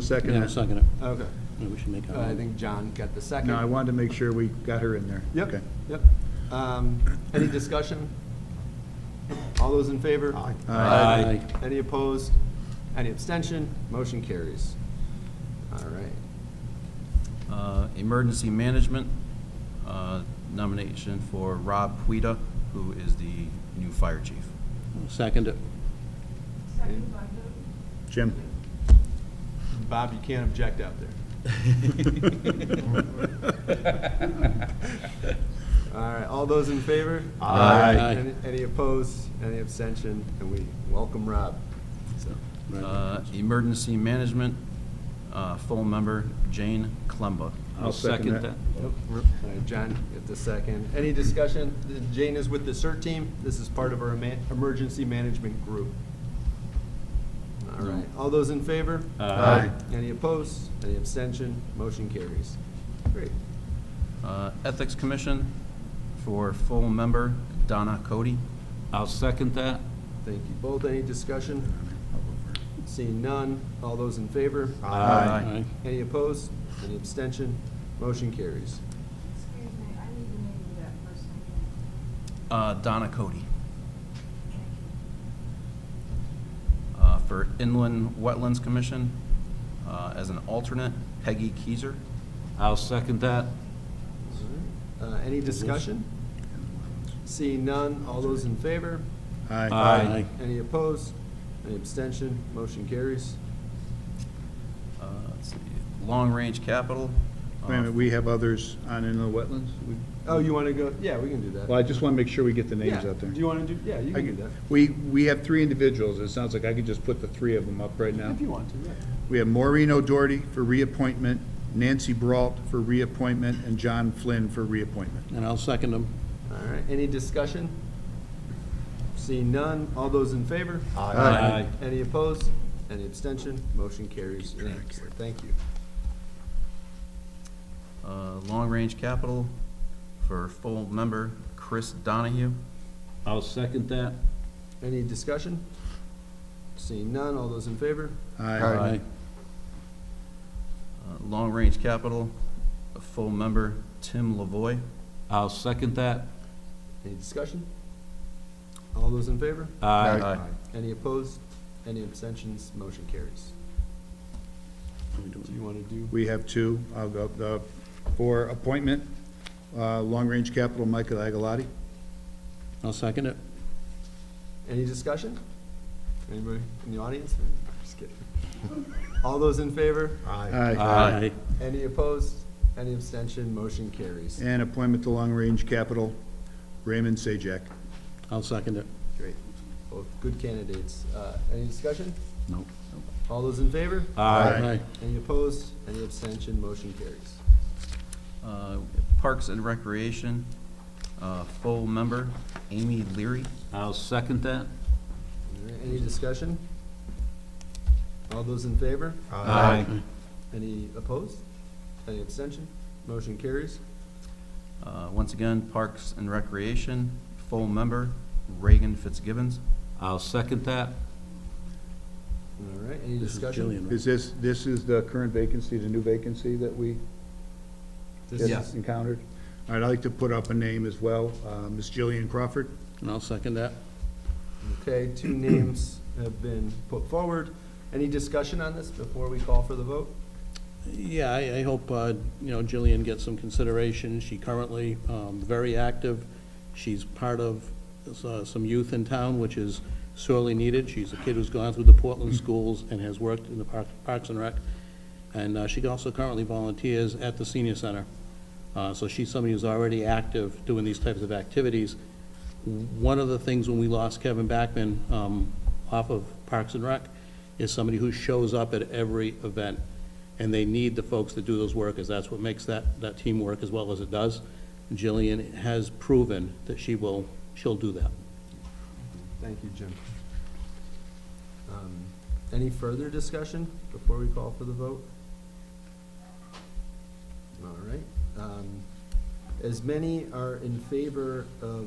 second Yeah, I'll it? second it. Okay. Yeah, We should make Uh, I our, think John got the second. No, I wanted to make sure we got her in there. Okay. Yep, yep. Um, Any discussion? All those in favor? Aye. Aye. Aye. Any opposed? Any abstention? Motion carries. All right. Uh, Emergency Management, uh, nomination for Rob Puida, who is the new fire chief. I'll second it. Second by who? Jim? Bob, you can't object out there. All right, all those in favor? Aye. Aye. Any- Any opposed? Any abstention? And we welcome Rob. So, Uh, Emergency Management, uh, full member Jane Klemba. I'll second that. Yep. All right, John, get the second. Any discussion? Jane is with the CERT team. This is part of our ema- emergency management group. All right, all those in favor? Aye. Any opposed? Any abstention? Motion carries. Great. Uh, Ethics Commission for full member Donna Cody. I'll second that. Thank you both. Any discussion? Seeing none. All those in favor? Aye. Any opposed? Any abstention? Motion carries. Excuse me, I need the name of that person again. Uh, Donna Cody Thank you. uh, for Inland Wetlands Commission, uh, as an alternate Peggy Keizer. I'll second that. All right. Uh, Any discussion? Seeing none. All those in favor? Aye. Aye. Any opposed? Any abstention? Motion carries. Uh, let's see, Long Range Capital. uh, Wait a minute, we have others on inland wetlands? We- Oh, you want to go, yeah, we can do that. Well, I just want to make sure we get the names Yeah. out there. Do you want to do, yeah, you I can do could- that, We, we have three individuals. It sounds like I could just put the three of them up right now. if you want to, yeah. We have Maureen O'Doherty for reappointment, Nancy Brault for reappointment, and John Flynn for reappointment. And I'll second them. All right, any discussion? Seeing none, all those in favor? Aye. Any opposed? Any abstention? Motion carries unanimously. Thank you. uh, Long Range Capital for full member Chris Donahue. I'll second that. Any discussion? Seeing none, all those in favor? Aye. Uh, Long Range Capital, a full member Tim Lavoy. I'll second that. Any discussion? All those in favor? Aye. Any opposed? Any abstentions? Motion carries. Do you want to do? We have two. I'll go, the, for appointment, uh, Long Range Capital, Michael Agalati. I'll second it. Any discussion? Anybody in the audience? Just kidding. All those in favor? Aye. Aye. Any opposed? Any abstention? Motion carries. And appointment to Long Range Capital, Raymond Sajak. I'll second it. Great. Both good candidates. Uh, Any discussion? Nope. All those in favor? Aye. Aye. Any opposed? Any abstention? Motion carries. Uh, Parks and Recreation, uh, full member Amy Leary. I'll second that. All right, Any discussion? All those in favor? Aye. Any opposed? Any abstention? Motion carries. Uh, Once again, Parks and Recreation, full member Reagan Fitzgibbons. I'll second that. All right, any This is discussion? Jillian, right? Is this, this is the current vacancy, the new vacancy that we This just is- encountered? All right, I'd like to put up a name as well, uh, Ms. Jillian Crawford. And I'll second that. Okay, two names have been put forward. Any discussion on this before we call for the vote? Yeah, I, I hope, uh, you know, Jillian gets some consideration. She currently, um, very active. She's part of uh, some youth in town, which is sorely needed. She's a kid who's gone through the Portland schools and has worked in the Park- Parks and Rec. And, uh, she also currently volunteers at the senior center. Uh, so she's somebody who's already active doing these types of activities. One of the things when we lost Kevin Backman, um, off of Parks and Rec is somebody who shows up at every event and they need the folks to do those work, as that's what makes that, that team work as well as it does. Jillian has proven that she will, she'll do that. Thank you, Jim. Um, Any further discussion before we call for the vote? All right. um, As many are in favor of,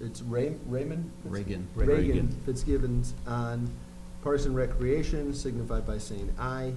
it's Ray- Raymond? Reagan. Reagan Fitzgibbons on Parks and Recreation, signified by saying aye.